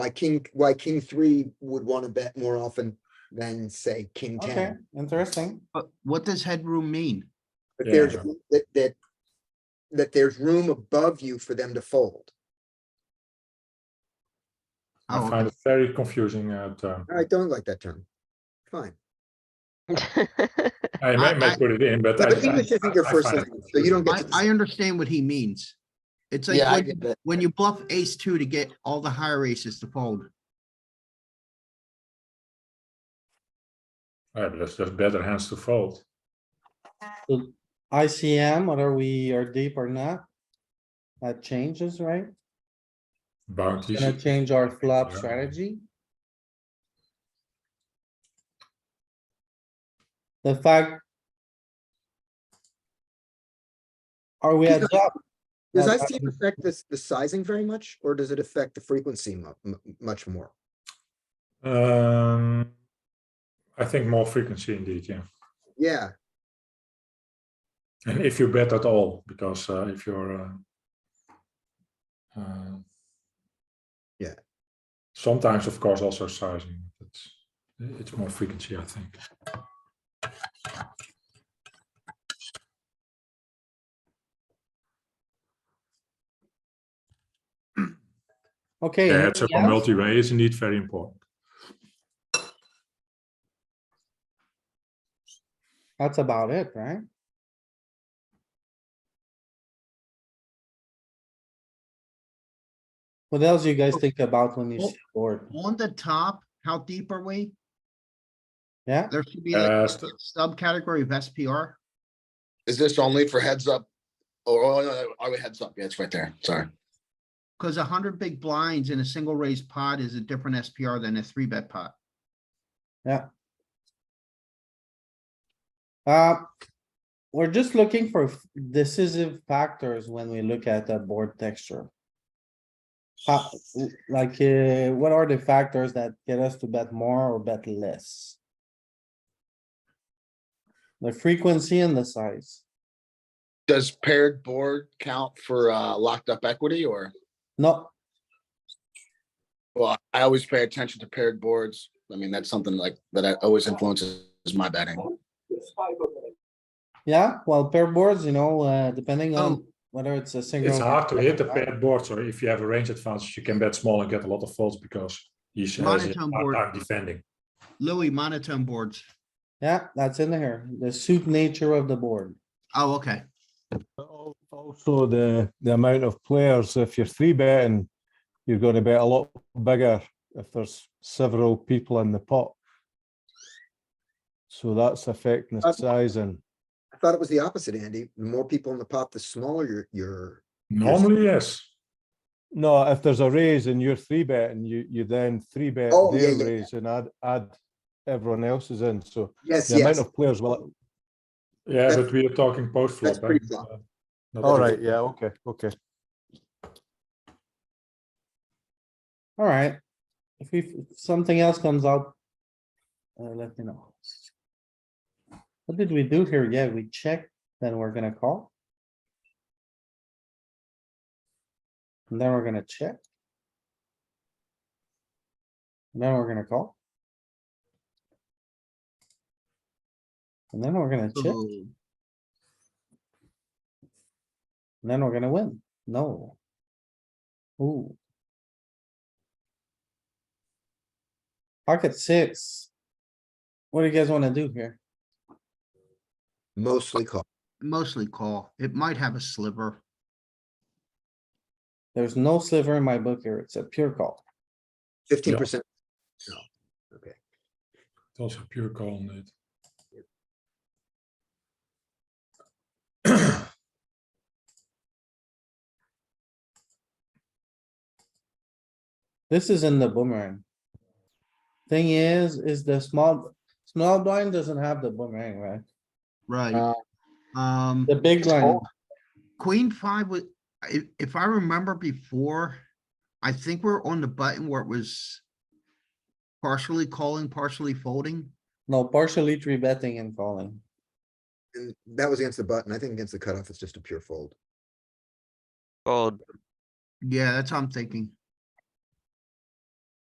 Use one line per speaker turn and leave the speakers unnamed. why king, why king three would want to bet more often than say king
Okay,
ten.
interesting.
But what does headroom mean?
But there's,
Yeah.
room- that, that, that there's room above you for them to fold.
Oh,
I find it very confusing uh, term.
I don't like that term. Fine.
I may, may
I-
put it in, but.
Yeah,
I-
But
I-
English isn't your
I
first
find it
language, so you don't
I,
get
I
to.
understand what he means. It's like
Yeah, I
when-
get that.
when you bluff ace two to get all the higher aces to fold.
Yeah, but that's just better hands to fold.
ICM, whether we are deep or not. That changes, right?
Bounties.
Gonna change our flop
Yeah.
strategy. The fact. Are we at top?
Does ICM affect this, the sizing very much, or does it affect the frequency mu- mu- much more?
Um, I think more frequency indeed, yeah.
Yeah,
And if you bet at all, because uh, if you're. Uh, uh,
Yeah.
Sometimes, of course, also sizing. but It's it's more frequency, I think.
Okay.
Yeah, it's a
anything else?
multi-way is indeed very important.
That's about it, right? What else you
Oh.
guys think about when you
Well-
see the board?
On the top, how deep are we?
Yeah,
There should be like
Uh,
a
st-
subcategory of SPR.
Is this only for heads up? Or, oh, no, no, are we heads up? Yeah, it's right there. Sorry.
Cause a hundred big blinds in a single raised pot is a different SPR than a three bet pot.
uh, we're just looking for f- decisive factors when we look at the board texture. How- like, uh, what are the factors that get us to bet more or bet less? The frequency and the size.
Does paired board count for uh locked up equity or?
No,
Well, I always pay attention to paired boards. I mean, that's something like that I always influences my betting.
yeah, well, pair boards, you know, uh, depending on
Oh,
whether it's a single.
It's hard to hit the
pair.
paired board, so if you have a range advantage, you can bet small and get a lot of folds because he's has a
Monotone
hard
board.
time defending.
Louis monotone boards.
Yeah, that's in there. The suit nature of the board.
Oh, okay.
Al- Also, the, the amount of players, if you're three betting, you're going to bet a lot bigger if there's several people in the pot. So that's affecting the
Uh,
sizing.
I thought it was the opposite, Andy. The more people in the pot, the smaller your, your,
Normally, yes.
No, if there's a raise and you're three betting, you, you then three bet
Oh, yeah,
their
yeah, yeah.
raise and add, add everyone else's in. So
yes,
the amount
yes.
of players will,
Yeah,
That's-
but we are talking eh? post flop.
that's pre-flop.
all right, yeah, okay, okay.
Alright. If we, if something else comes out. Uh, let me know. What did we do here? Yeah, we checked, then we're gonna call. And then we're gonna check. And Then we're gonna call. And then we're gonna check, and
So
then we're gonna win. No. Uh. Ooh. Pocket six. What do you guys wanna do here?
Mostly call.
Mostly call. It might have a sliver.
There's no sliver in my book here. It's a pure call.
Fifteen percent,
It's also pure call on it.
This is in the boomerang. Thing is, is the small, small blind doesn't have the boomerang, right?
Right.
Uh,
Um,
The big blind,
queen five was, if, if I remember before, I think we're on the button where it was partially calling, partially folding.
no, partially three betting and calling.
and that was against the button. I think against the cutoff, it's just a pure fold.
Fold.
Yeah, that's how I'm thinking.